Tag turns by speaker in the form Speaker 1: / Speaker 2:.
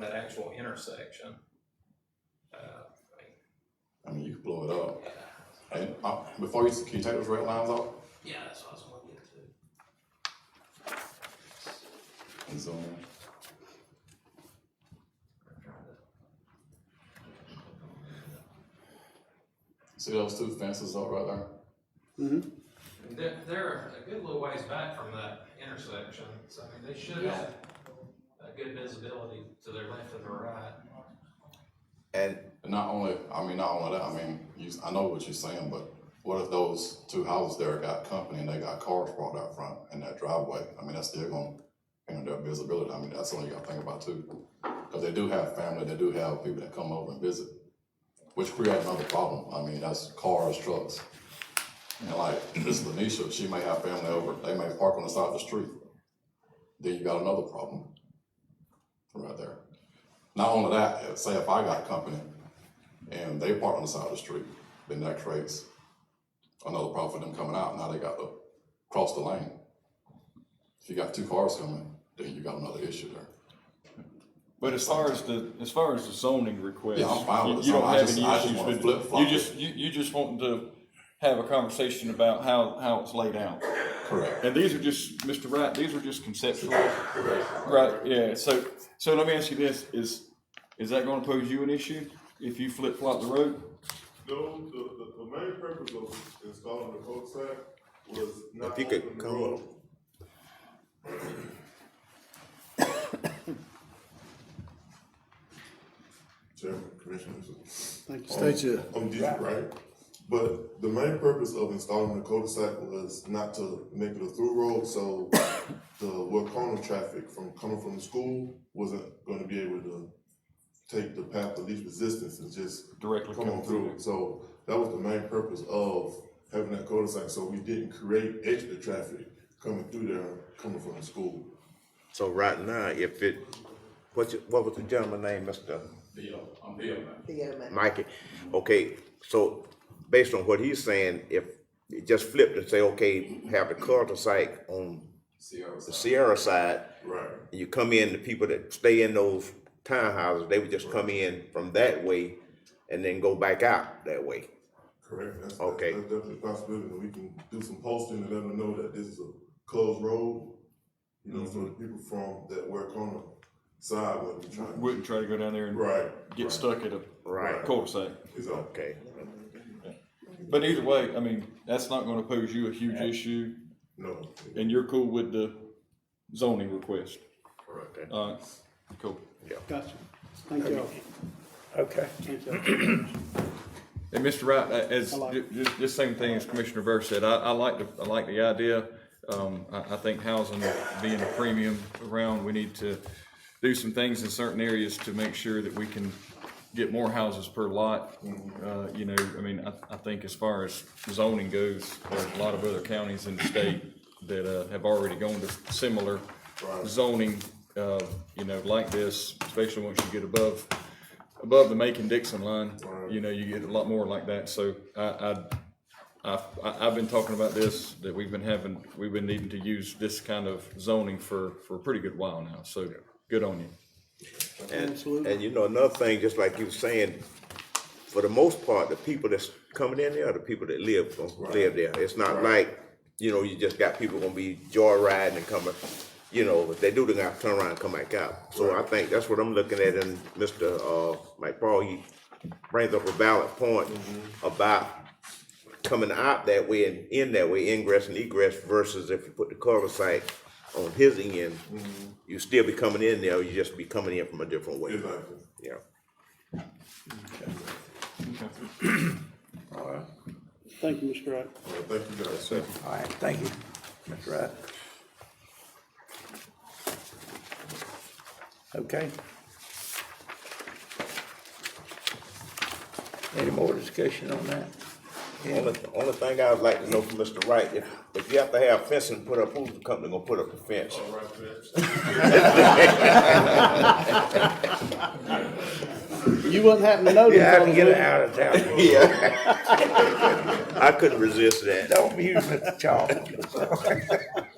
Speaker 1: that actual intersection. Uh,
Speaker 2: I mean, you could blow it up.
Speaker 3: Yeah,
Speaker 2: And uh, before you, can you take those red lines out
Speaker 3: yeah, that's what I was gonna get to.
Speaker 2: and zoom? in? See those two fences up right there?
Speaker 1: They're, they're a good little ways back from that intersection, so I mean, they should
Speaker 3: Yeah.
Speaker 1: have a good visibility to their left and their right.
Speaker 4: And
Speaker 2: And not only, I mean, not only that, I mean, you, I know what you're saying, but what if those two houses there got company and they got cars parked out front in that driveway? I mean, that's still gonna hinder their visibility. I mean, that's something you gotta think about too. Cause they do have family, they do have people that come over and visit, which creates another problem. I mean, that's cars, trucks. And like this Lanisha, she may have family over, they may park on the side of the street. Then you got another problem right there. Not only that, if- say if I got company and they park on the side of the street, then that creates another problem for them coming out. Now they got to cross the lane. If you got two cars coming, then you got another issue there.
Speaker 5: But as far as the, as far as the zoning request,
Speaker 2: Yeah, I'm fine with
Speaker 5: you
Speaker 2: the
Speaker 5: you don't
Speaker 2: zoning. I
Speaker 5: have
Speaker 2: just-
Speaker 5: any
Speaker 2: I just
Speaker 5: issues
Speaker 2: wanna
Speaker 5: with,
Speaker 2: flip-flop
Speaker 5: you
Speaker 2: it.
Speaker 5: just, you, you just wanting to have a conversation about how, how it's laid out.
Speaker 2: Correct.
Speaker 5: And these are just, Mr. Wright, these are just conceptual. Right, yeah, so, so let me ask you this, is, is that gonna pose you an issue if you flip flop the road?
Speaker 6: No, the, the, the main purpose of installing the cul sac was not
Speaker 4: If you could
Speaker 6: opening the
Speaker 4: come
Speaker 6: road.
Speaker 4: up.
Speaker 6: Chairman, Commissioners.
Speaker 7: Thank you. State your,
Speaker 6: I'm deep, right? But the main purpose of installing the cul-de-sac was not to make it a through road, so the Wakona traffic from coming from the school wasn't gonna be able to take the path of least resistance and just
Speaker 5: Directly
Speaker 6: come on through. So that was the main purpose of having that cul-de-sac, so we didn't create extra traffic coming through there, coming from the school.
Speaker 4: so right now, if it, what's, your- what was the gentleman's name, Mr.
Speaker 2: Bill, I'm Bill, man.
Speaker 4: Mikey? Okay, so based on what he's saying, if it just flipped and say, okay, have the cul-de-sac on
Speaker 2: Sierra
Speaker 4: the
Speaker 2: side.
Speaker 4: Sierra side,
Speaker 6: Right.
Speaker 4: you come in, the people that stay in those townhouses, they would just come in from that way and then go back out that way.
Speaker 6: Correct. That's,
Speaker 4: Okay.
Speaker 6: That's definitely a possibility, and we can do some posting and let them know that this is a closed road. You know, so the
Speaker 4: Mm-hmm.
Speaker 6: people from that work on the side would be trying. to-
Speaker 5: Wouldn't try to go down there and
Speaker 6: Right.
Speaker 5: get stuck at a
Speaker 4: Right.
Speaker 5: cul-de-sac.
Speaker 6: Exactly.
Speaker 4: Okay,
Speaker 5: But either way, I mean, that's not gonna pose you a huge issue,
Speaker 6: No.
Speaker 5: and you're cool with the zoning request.
Speaker 4: correct,
Speaker 5: All right, cool.
Speaker 7: gotcha. Thank y'all.
Speaker 8: Okay.
Speaker 7: Thank y'all.
Speaker 5: And Mr. Wright, a- as,
Speaker 7: I like
Speaker 5: ju- ju- this same thing as Commissioner Burr said, I, I like the, I like the idea. Um, I, I think housing being a premium around, we need to do some things in certain areas to make sure that we can get more houses per lot. Uh, you know, I mean, I, I think as far as zoning goes, there's a lot of other counties in the state that, uh, have already gone to similar zoning, uh, you know, like this, especially once you get above, above the Macon-Dixon line, you know, you get a lot more like that, so I, I, I've, I- I've been talking about this, that we've been having, we've been needing to use this kind of zoning for, for a pretty good while now, so good on you.
Speaker 4: And,
Speaker 7: Absolutely.
Speaker 4: and you know, another thing, just like you were saying, for the most part, the people that's coming in there are the people that live, gonna live there. It's not like, you know, you just got people gonna be joyriding and coming, you know, if they do, they gotta turn around and come back out. So I think that's what I'm looking at and Mr. uh, Mike Paul, he brings up a valid point about coming out that way and in that way, ingress and egress versus if you put the cul-de-sac on his end, you still be coming in there, you just be coming in from a different way.
Speaker 6: Exactly.
Speaker 4: Yeah.
Speaker 2: All right.
Speaker 7: Thank you, Mr. Wright.
Speaker 6: Well, thank you guys.
Speaker 8: All right, thank you, Mr. Wright. Okay. Any more discussion on that?
Speaker 4: Only, only thing I would like to know from Mr. Wright, if, if you have to have fencing put up, who's the company gonna put up the fence?
Speaker 7: You wouldn't happen to know this.
Speaker 8: You have to
Speaker 7: fellas,
Speaker 8: get
Speaker 7: would
Speaker 8: it
Speaker 7: you?
Speaker 8: out of town.
Speaker 4: Yeah. I couldn't resist that.
Speaker 8: Don't use Mr. Chalmers.